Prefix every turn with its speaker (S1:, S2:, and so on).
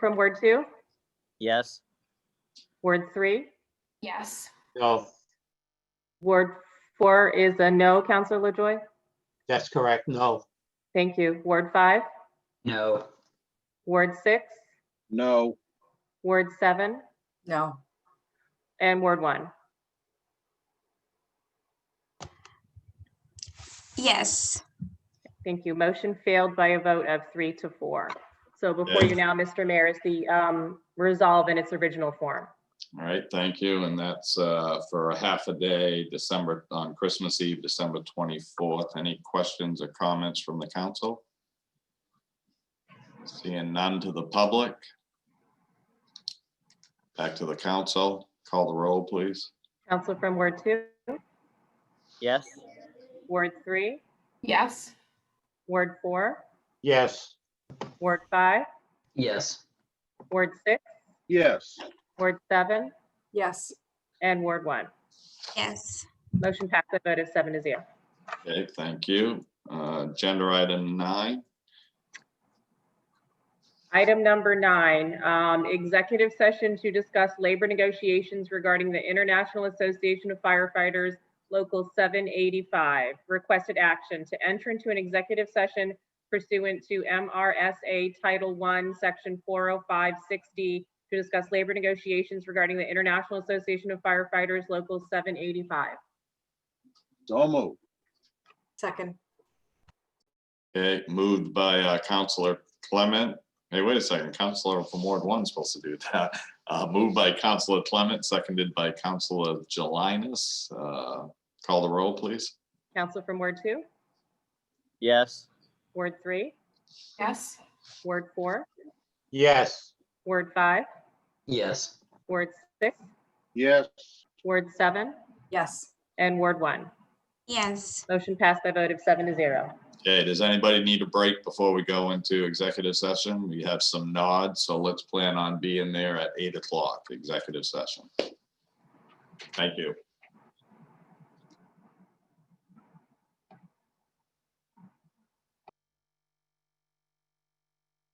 S1: From word two,
S2: Yes.
S1: word three,
S3: Yes.
S4: No,
S1: word four is a no, Counselor LaJoy?
S4: that's correct. No,
S1: Thank you. Word five,
S5: No.
S1: word six,
S6: No,
S1: word seven,
S7: No,
S1: and word one.
S3: Yes.
S1: Thank you. Motion failed by a vote of three to four. So before you now, Mr. Mayor, is the um, resolve in its original form.
S8: All right, thank you. And that's uh, for a half a day, December, on Christmas Eve, December 24th. Any questions or comments from the council? Seeing none to the public. Back to the council. Call the roll, please.
S1: Counsel from word two,
S2: Yes.
S1: word three,
S3: Yes.
S1: word four,
S4: yes,
S1: word five,
S5: Yes.
S1: word six,
S6: yes,
S1: word seven,
S7: yes,
S1: and word one.
S3: Yes.
S1: Motion passed by a vote of seven to zero.
S8: Okay, thank you. Uh, Agenda item nine.
S1: Item number nine, um, executive session to discuss labor negotiations regarding the International Association of Firefighters Local 785. Requested action to enter into an executive session pursuant to MRSA Title I, Section 4056D, to discuss labor negotiations regarding the International Association of Firefighters Local 785.
S6: so moved,
S7: second,
S8: Okay, moved by uh, Counselor Clement. Hey, wait a second, Counselor from Ward One is supposed to do that. Uh, Moved by Counselor Clement, seconded by Counselor Jelinas. Uh, Call the roll, please.
S1: Counsel from Ward 2,
S2: Yes.
S1: Ward 3,
S3: Yes.
S1: Ward 4,
S4: yes,
S1: Ward 5,
S5: Yes.
S1: Ward 6,
S6: yes,
S1: Ward 7,
S7: yes,
S1: and Ward 1.
S3: Yes.
S1: Motion passed by a vote of seven to zero.
S8: Okay, does anybody need a break before we go into executive session? We have some nods, so let's plan on being there at eight o'clock, executive session. Thank you.